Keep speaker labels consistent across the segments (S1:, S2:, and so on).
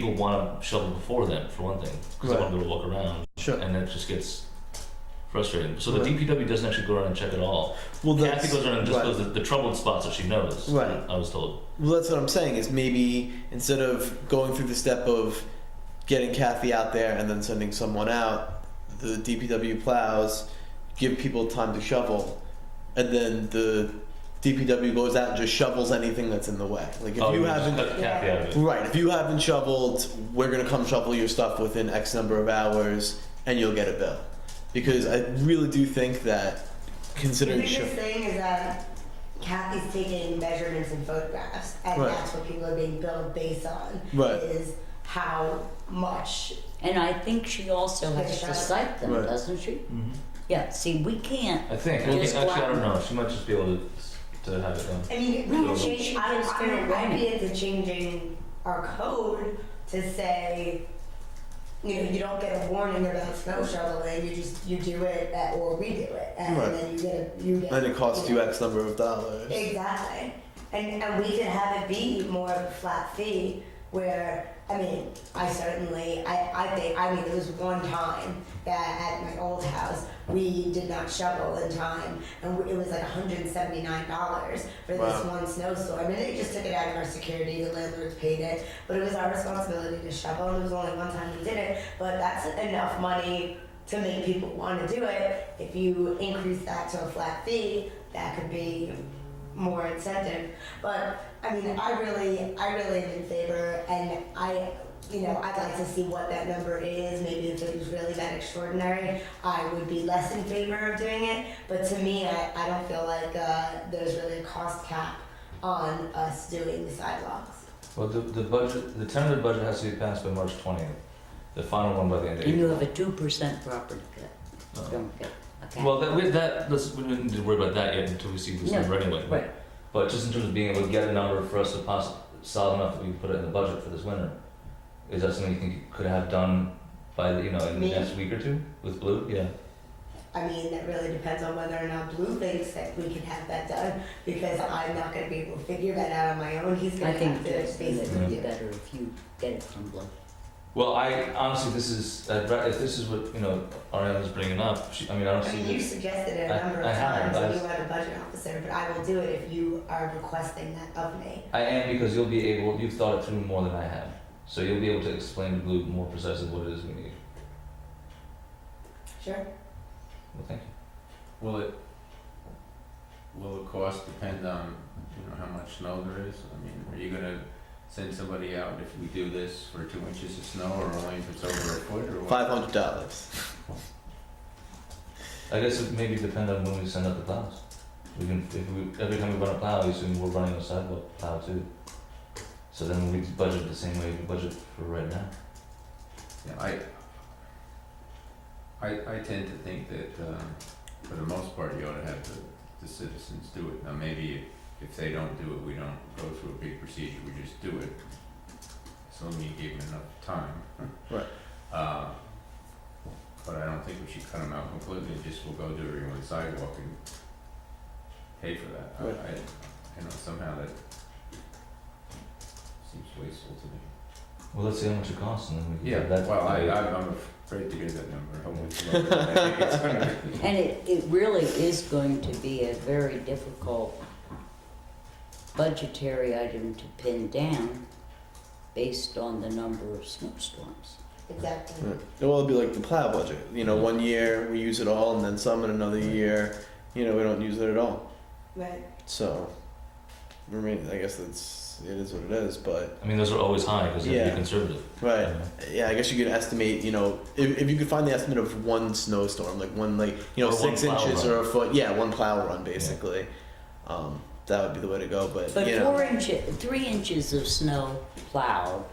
S1: people want to shovel before then, for one thing, because they want to be able to look around,
S2: Sure.
S1: and it just gets frustrating. So the
S2: Right.
S1: DPW doesn't actually go around and check at all.
S2: Well,
S1: Kathy
S2: that's
S1: goes around and just
S2: right.
S1: goes the, the troubled spots that she knows.
S2: Right.
S1: I was told.
S2: well, that's what I'm saying is maybe instead of going through the step of getting Kathy out there and then sending someone out, the DPW plows, give people time to shovel, and then the DPW goes out and just shovels anything that's in the way. Like if
S1: oh,
S2: you
S1: we just
S2: haven't
S1: cut Kathy out of it.
S2: Right. If you haven't shoveled, we're gonna come shovel your stuff within X number of hours, and you'll get a bill. Because I really do think that,
S3: The
S2: considering
S3: biggest
S2: sho-
S3: thing is that Kathy's taking measurements and photographs, and
S2: Right.
S3: that's what people are being billed based on.
S2: Right.
S3: Is how much.
S4: And I think she also has to cite them,
S2: Right.
S4: doesn't she?
S1: Mhm.
S4: Yeah, see, we can't.
S1: I think.
S4: We'll
S1: I
S4: just
S1: think- actually, I
S4: flatten
S1: don't know. She might just be able to, to have it done.
S3: I mean,
S4: No,
S3: we
S1: but
S3: could
S4: she
S3: change.
S4: should
S3: I,
S4: get us fair
S3: I, I'd be
S4: warning.
S3: into changing our code to say, you know, you don't get a warning about snow shoveling. You just you do it, at, or we do it, and
S2: Right.
S3: then you get a you get.
S2: and it costs you
S3: know,
S2: X number of dollars.
S3: Exactly. And, and we could have it be more of a flat fee where, I mean, I certainly, I, I think, I mean, there was one time that at my old house, we did not shovel in time and it was like $179 for this
S2: Wow.
S3: one snowstorm. And they just took it out of our security, the landlords paid it, but it was our responsibility to shovel and it was only one time we did it, but that's enough money to make people want to do it. If you increase that to a flat fee, that could be more incentive. But I mean, I really, I really am in favor, and I, you know, I'd like to see what that number is. Maybe if it was really that extraordinary, I would be less in favor of doing it. But to me, I, I don't feel like uh, there's really a cost cap on us doing the sidewalks.
S1: Well, the, the budget, the tentative budget has to be passed by March 20th. The final one by the end of
S4: And you
S1: April.
S4: have a two percent property cut. Don't get. Okay.
S1: Well, that, we, that let's, we don't need to worry about that yet until we see who's
S4: Yeah,
S1: number anyway.
S4: right.
S1: But just in terms of being able to get a number for us to pass solid enough that we can put it in the budget for this winter, is that something you think you could have done by the, you know in
S3: Me?
S1: the next week or two with Blue? Yeah.
S3: I mean, that really depends on whether or not Blue thinks that we can have that done, because I'm not gonna be able to figure that out on my own. He's
S4: I
S3: gonna
S4: think
S3: have to
S4: it's
S3: face it
S4: would
S3: with
S4: be
S3: you.
S4: better if you get it from Blue.
S1: Well, I honestly, this is I'd ra- if this is what you know Ariana's bringing up. She, I mean, I don't
S3: I
S1: see.
S3: mean,
S1: the-
S3: you suggested it
S1: I-
S3: a number
S1: I
S3: of
S1: haven't,
S3: times,
S1: but I
S3: and you
S1: s-
S3: had a budget officer, but I will do it if you are requesting that of me.
S1: I am because you'll be able, you've thought it through more than I have. So you'll be able to explain to Blue more precisely what it is we need.
S3: Sure.
S1: Well, thank you.
S5: Will it, will the cost depend on, you know, how much snow there is? I mean, are you gonna send somebody out if we do this for two inches of snow or only if it's over a foot or what?
S2: Five hundred dollars.
S1: I guess it maybe depend on when we send out the plows. We can, if we, every time we run a plow, we assume we're running a sidewalk plow too. So then we budget the same way we budget for right now.
S5: Yeah, I, I, I tend to think that, um, for the most part, you ought to have the, the citizens do it. Now, maybe if, if they don't do it, we don't go through a big procedure, we just do it. As long as you give them enough time.
S2: Right.
S5: Uh, but I don't think we should cut them out completely, just we'll go do everyone's sidewalk and pay for that. I,
S2: Right.
S5: I, you know, somehow that seems wasteful to me.
S1: Well, let's see how much it costs and then we can.
S5: Yeah,
S1: that-
S5: well, I, I- I'm afraid to hear that number. Hopefully it's lower than I think it's gonna be.
S4: And it, it really is going to be a very difficult budgetary item to pin down based on the number of snowstorms.
S3: Exactly.
S2: Right. Well, it'll be like the plow budget. You know, one year we use it all, and then some in another year, you know, we don't use it at all.
S3: Right.
S2: So, I mean, I guess that's it is what it is. But
S1: I mean, those are always high because they're
S2: Yeah.
S1: pretty conservative.
S2: right.
S1: you know.
S2: Yeah, I guess you could estimate, you know, if, if you could find the estimate of one snowstorm, like one, like, you know,
S1: Or one
S2: six
S1: plow
S2: inches
S1: run.
S2: or a foot. Yeah, one plow run, basically. Um, that would be the way to go, but,
S4: But
S2: you know.
S4: four inches, three inches of snow plowed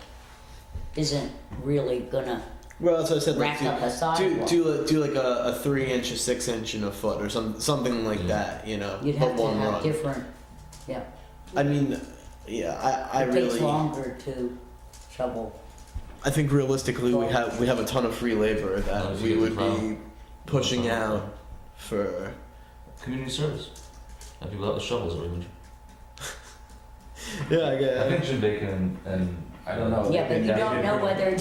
S4: isn't really gonna
S2: Well, that's what I said. Like,
S4: rack
S2: do,
S4: up a
S2: do,
S4: sidewalk.
S2: do, do like a, a three inch, a six inch, and a foot or some, something like
S1: Yeah.
S2: that, you know.
S4: You'd
S2: but
S4: have to
S2: one
S4: have
S2: run.
S4: different, yeah.
S2: I mean, yeah, I, I
S4: It
S2: really.
S4: takes longer to shovel.
S2: I think realistically, we
S4: Long.
S2: have we have a ton of free labor
S1: Oh,
S2: that
S1: if you
S2: we
S1: get the
S2: would be
S1: plow.
S2: pushing
S1: Plow.
S2: out for.
S1: Community service. Have people out with shovels every winter.
S2: Yeah, I
S1: I think
S2: guess.
S1: Jim Bacon and, and
S5: I don't know.
S4: Yeah, but you
S5: Yeah.
S2: Oh,
S4: don't know whether